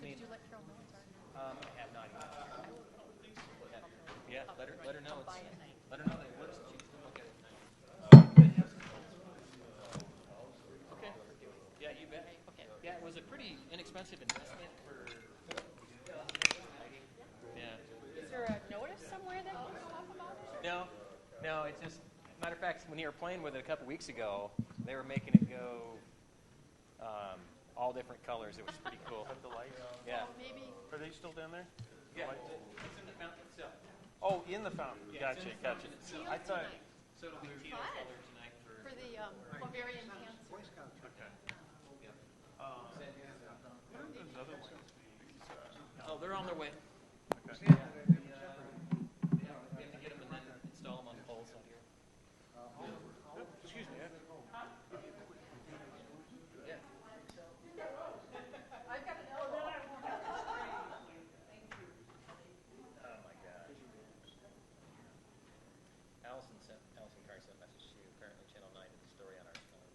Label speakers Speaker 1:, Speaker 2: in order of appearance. Speaker 1: Um, Let her, let her know it's, let her know that it works, and she can come look at it at night. Okay. Yeah, you bet.
Speaker 2: Okay.
Speaker 1: Yeah, it was a pretty inexpensive investment for lighting. Yeah.
Speaker 2: Is there a notice somewhere that can go up about it?
Speaker 1: No, no, it's just, matter of fact, when you were playing with it a couple weeks ago, they were making it go um, all different colors. It was pretty cool.
Speaker 3: The lights,
Speaker 1: Yeah.
Speaker 2: Maybe,
Speaker 3: are they still down there?
Speaker 1: Yeah, it's in the fountain itself.
Speaker 3: Oh, in the fountain,
Speaker 1: Yeah,
Speaker 3: gotcha,
Speaker 1: it's in the
Speaker 3: gotcha.
Speaker 1: fountain itself.
Speaker 3: I thought,
Speaker 1: So it'll be teal
Speaker 2: Fun.
Speaker 1: color tonight for.
Speaker 2: for the um, Bavarian cancer.
Speaker 3: where did those other ones be?
Speaker 1: Oh, they're on their way.
Speaker 3: Okay.